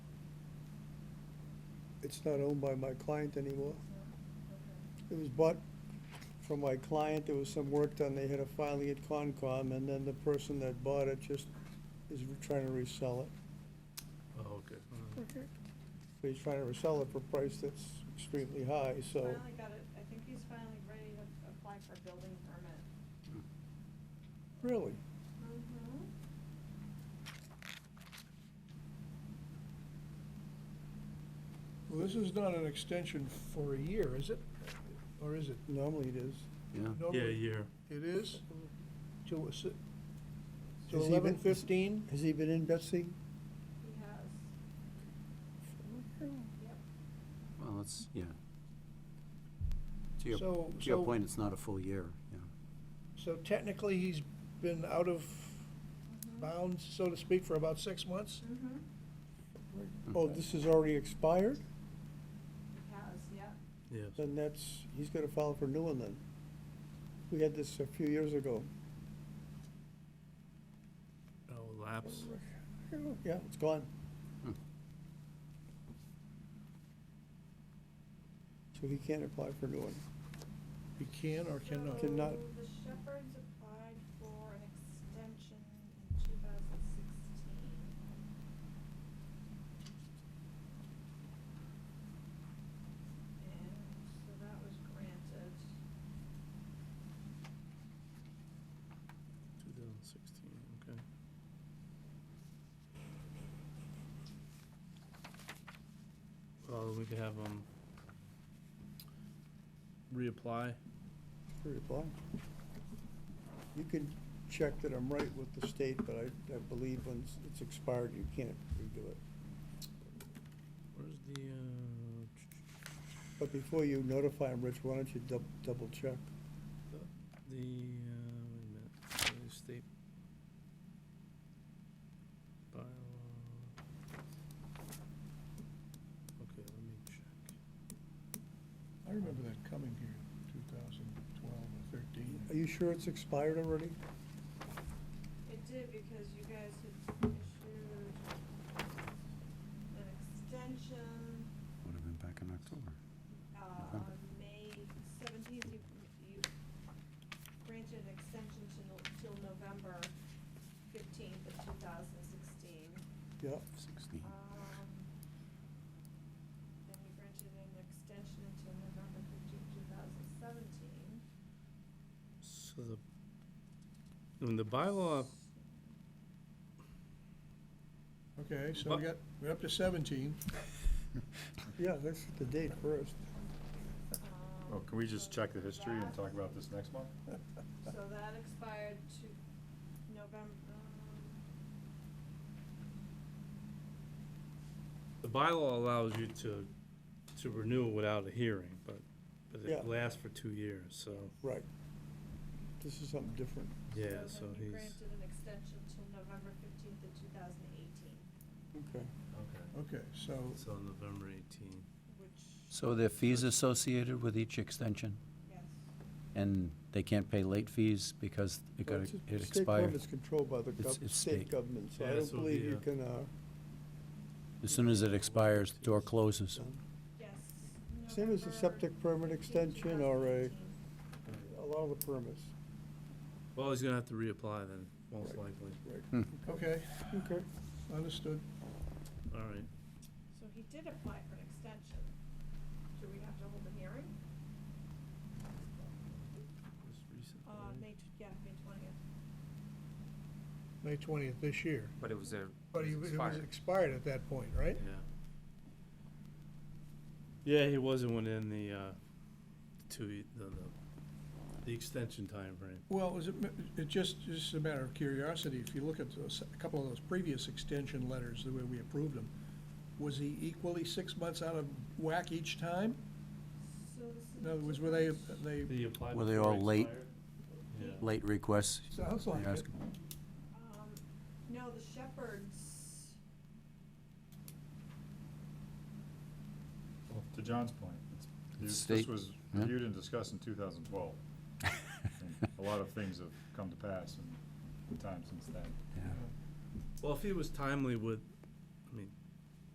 it's not owned by my client anymore. It was bought from my client, there was some work done, they had a filing at Concom, and then the person that bought it just is trying to resell it. Oh, okay. But he's trying to resell it for a price that's extremely high, so. Finally got it, I think he's finally ready to apply for a building permit. Really? Well, this is not an extension for a year, is it? Or is it? Normally it is. Yeah. Yeah, Normally, year. It is? To, a si- to Has he been- eleven fifteen? Has he been in, Betsy? He has, yep. Well, it's, yeah. To your, to So, your so, point, it's not a full year, yeah. so technically, he's been out of bounds, so to speak, for about six months? Mm-hmm. Oh, this is already expired? He has, yep. Yes. Then that's, he's gonna file for a new one then. We had this a few years ago. Oh, lapse. Yeah, it's gone. Hmm. So he can't apply for a new one. He can or cannot? Cannot. So The Shepherds applied for an extension in two thousand sixteen. And so that was granted. 2016, okay. Well, Oh, we could have um, them reapply. Reapply. You can check that I'm right with the state, but I, I believe when it's expired, you can't redo it. Where's the, uh, But before you notify him, Rich, why don't you dou- double check? the, uh, wait a minute, the state bylaw. Okay, let me check. I remember that coming here in two thousand twelve or thirteen. Are you sure it's expired already? It did because you guys had issued an extension, Would have been back in October. uh, on May seventeenth, you, you granted an extension to, no- till November fifteenth of two thousand sixteen. Yeah, Sixteen. Um, then you granted an extension until November fifteenth, two thousand seventeen. So the, when the bylaw, Okay, so we got, we're up to seventeen. yeah, that's the date first. Well, can we just check the history and talk about this next month? So that expired to November, um, the bylaw allows you to, to renew without a hearing, but, but Yeah. it lasts for two years, so, Right. This is something different. yeah, so then you he's, granted an extension till November fifteenth of two thousand eighteen, Okay. okay, Okay, so, so November eighteen. which, So there are fees associated with each extension, yes. and they can't pay late fees because it got, Well, it's- it State expired. government's controlled by the It's- gov- it's state state. government, so Yeah, I this don't will be believe you a- can, uh, As soon as it expires, the door closes. Yes. same as a November septic permit 15th, extension or a, 2018. a lot of the permits. Well, he's gonna have to reapply then, most Right. likely. okay, Okay. understood. All right, So he did apply for an extension. Do we have to hold a hearing? most recent, Uh, right? May, tw- yeah, May twentieth. May twentieth this year. But it was a, But he- it it was was expired. expired at that point, right? Yeah. Yeah, he wasn't within the, uh, two, ye- the, the, the extension timeframe. Well, is it, it just, just a matter of curiosity, if you look at those, a couple of those previous extension letters, the way we approved them, was he equally six months out of whack each time? So this is. In other words, were they, they, Did he apply Were they before all late? expired? Yeah. Late requests, sounds you like ask it. them. Um, no, the Shepherds, Well, To John's point, it's- this state- this was yeah. reviewed and discussed in 2012. And A lot of things have come to pass in the time since then. Yeah. Well, if he was timely with